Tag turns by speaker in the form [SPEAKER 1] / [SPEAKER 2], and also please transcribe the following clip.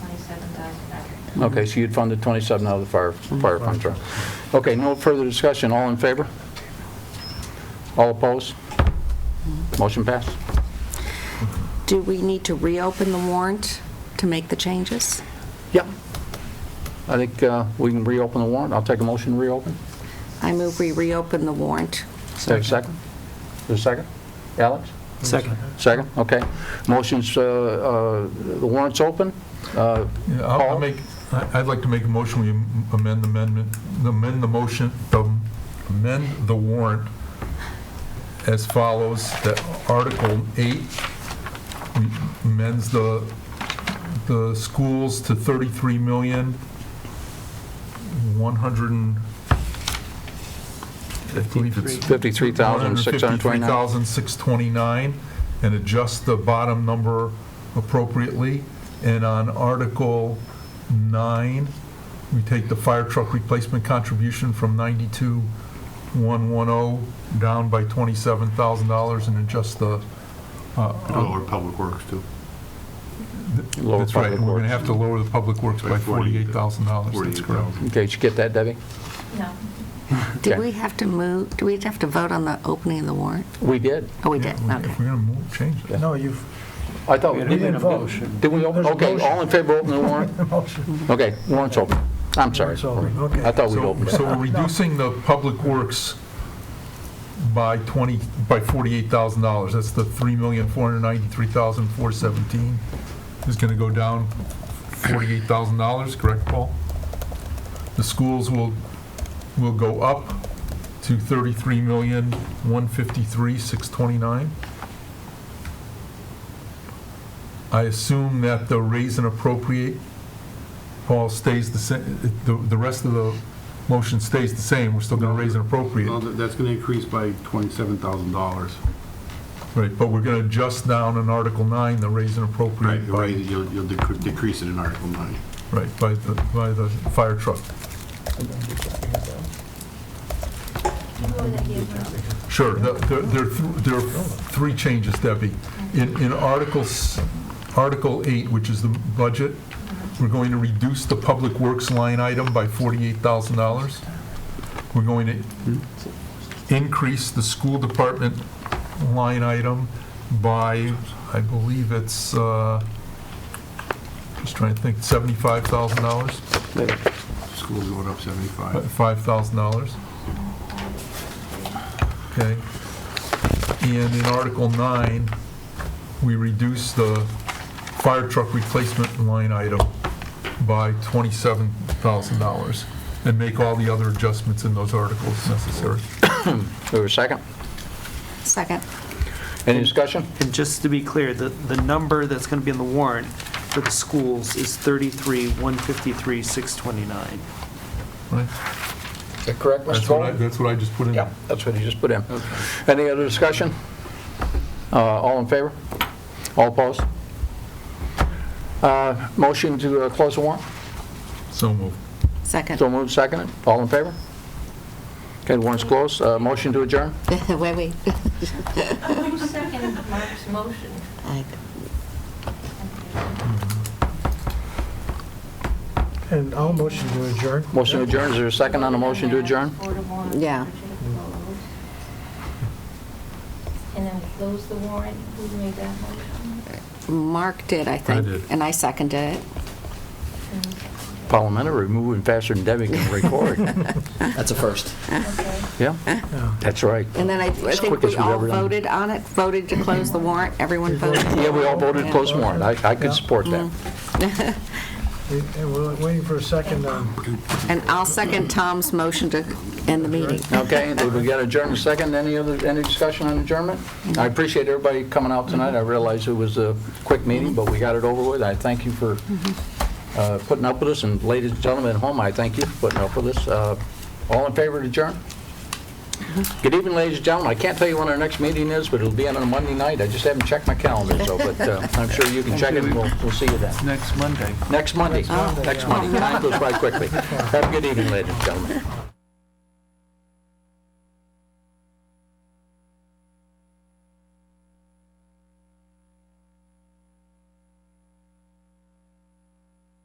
[SPEAKER 1] $27,500.
[SPEAKER 2] Okay, so you'd fund the 27 out of the fire,
[SPEAKER 3] Mm-hmm.
[SPEAKER 2] fire fund, sorry. Okay, no further discussion, all in favor? All opposed? Motion passed.
[SPEAKER 4] Do we need to reopen the warrant to make the changes?
[SPEAKER 2] Yep. I think uh, we can reopen the warrant, I'll take a motion to reopen.
[SPEAKER 4] I move we reopen the warrant.
[SPEAKER 2] Is there a second? Is there a second? Alex?
[SPEAKER 3] Second.
[SPEAKER 2] Second, okay. Motion's, uh, uh, the warrant's open. Uh,
[SPEAKER 3] Yeah, I'll- I'll
[SPEAKER 2] Paul?
[SPEAKER 3] make, I- I'd like to make a motion, we amend the amendment, amend the motion, um, amend the warrant as follows, that Article 8 amends the, the schools to 33 million, 100 and... I believe it's
[SPEAKER 2] 53,629.
[SPEAKER 3] 153,629, and adjust the bottom number appropriately. And on Article 9, we take the fire truck replacement contribution from 92,110 down by $27,000 and adjust the, uh, Oh.
[SPEAKER 5] Lower Public Works too,
[SPEAKER 2] Lower
[SPEAKER 3] that's right,
[SPEAKER 2] public
[SPEAKER 3] we're going to
[SPEAKER 2] works.
[SPEAKER 3] have to lower the public works by
[SPEAKER 5] By 48,
[SPEAKER 3] $48,000. That's correct.
[SPEAKER 5] 48,000.
[SPEAKER 2] Okay, did you get that, Debbie?
[SPEAKER 1] No,
[SPEAKER 4] Did
[SPEAKER 2] Okay.
[SPEAKER 4] we have to move, do we have to vote on the opening of the warrant?
[SPEAKER 2] We did.
[SPEAKER 4] Oh, we did,
[SPEAKER 3] Yeah,
[SPEAKER 4] okay.
[SPEAKER 3] If we're going to move, change it.
[SPEAKER 6] No, you've,
[SPEAKER 2] I thought,
[SPEAKER 6] we didn't vote.
[SPEAKER 2] did we, open?
[SPEAKER 6] There's a
[SPEAKER 2] okay,
[SPEAKER 6] motion.
[SPEAKER 2] all in favor of opening the warrant?
[SPEAKER 6] Motion.
[SPEAKER 2] Okay, warrant's open. I'm sorry.
[SPEAKER 6] Warrant's open, okay.
[SPEAKER 2] I thought we'd
[SPEAKER 3] So
[SPEAKER 2] open
[SPEAKER 3] so
[SPEAKER 2] it.
[SPEAKER 3] we're reducing the public works by 20, by $48,000. That's the $3,493,417 is going to go down $48,000, correct, Paul? The schools will, will go up to $33,153,629. I assume that the raise and appropriate Paul stays the same, the, the rest of the motion stays the same, we're still gonna raise and
[SPEAKER 5] No,
[SPEAKER 3] appropriate,
[SPEAKER 5] that- that's going to increase by $27,000.
[SPEAKER 3] right, but we're gonna adjust down in Article 9, the raise and appropriate
[SPEAKER 5] You'll raise
[SPEAKER 3] by,
[SPEAKER 5] it- You'll you'll decre- decrease it in Article 9.
[SPEAKER 3] right, by the, by the fire truck. Sure, the- there, there are th- there are three changes, Debbie. In, in Articles, Article 8, which is the budget, we're going to reduce the Public Works line item by $48,000. We're going to increase the school department line item by, I believe it's, uh, just trying to think, $75,000,
[SPEAKER 5] Schools going up 75.
[SPEAKER 3] $5,000. Okay. And in Article 9, we reduce the fire truck replacement line item by $27,000 and make all the other adjustments in those articles necessary.
[SPEAKER 2] We have a second?
[SPEAKER 4] Second.
[SPEAKER 2] Any discussion?
[SPEAKER 7] And just to be clear, the, the number that's going to be in the warrant for the schools is 33, 153, 629.
[SPEAKER 3] Right?
[SPEAKER 2] Is that correct,
[SPEAKER 3] That's what I, that's what I just put in.
[SPEAKER 2] Yeah, that's what he just put in. Any other discussion? Uh, All in favor? All opposed? Uh, Motion to uh, close the warrant?
[SPEAKER 3] So moved.
[SPEAKER 4] Second.
[SPEAKER 2] So moved, seconded. All in favor? Okay, the warrant's closed. Uh, Motion to adjourn?
[SPEAKER 4] Wait, wait.
[SPEAKER 1] Who seconded Mark's motion?
[SPEAKER 4] I-
[SPEAKER 6] And I'll motion to adjourn.
[SPEAKER 2] Motion to adjourn, is there a second on the motion to adjourn?
[SPEAKER 1] Four to one,
[SPEAKER 4] Yeah.
[SPEAKER 1] which is closed. And then we close the warrant, who made that motion?
[SPEAKER 4] Mark did, I think.
[SPEAKER 3] did.
[SPEAKER 4] And I seconded it.
[SPEAKER 2] Parliamentary, moving faster than Debbie can record.
[SPEAKER 8] That's a first.
[SPEAKER 1] Okay.
[SPEAKER 2] Yeah,
[SPEAKER 6] Yeah.
[SPEAKER 2] that's right.
[SPEAKER 4] And then I I think
[SPEAKER 2] quick as
[SPEAKER 4] we
[SPEAKER 2] we've
[SPEAKER 4] all
[SPEAKER 2] ever done.
[SPEAKER 4] voted on it, voted to close the warrant, everyone voted.
[SPEAKER 2] Yeah, we all voted to close the warrant. I I could
[SPEAKER 6] Yeah.
[SPEAKER 2] support that.
[SPEAKER 6] And we're waiting for a second um,
[SPEAKER 4] And I'll second Tom's motion to end the meeting.
[SPEAKER 2] Okay, we got adjournment second, any other, any discussion on adjournment? I appreciate everybody coming out tonight, I realize it was a quick meeting, but we got it over with, I thank you for uh, putting up with us, and ladies and gentlemen at home, I thank you for putting up with us. Uh, All in favor to adjourn? Good evening, ladies and gentlemen, I can't tell you when our next meeting is, but it'll be on a Monday night, I just haven't checked my calendar, so, but uh, I'm sure you can check it, and we'll, we'll see you then.
[SPEAKER 7] Next Monday.
[SPEAKER 2] Next Monday, next Monday, time goes by quickly. Have a good evening, ladies and gentlemen.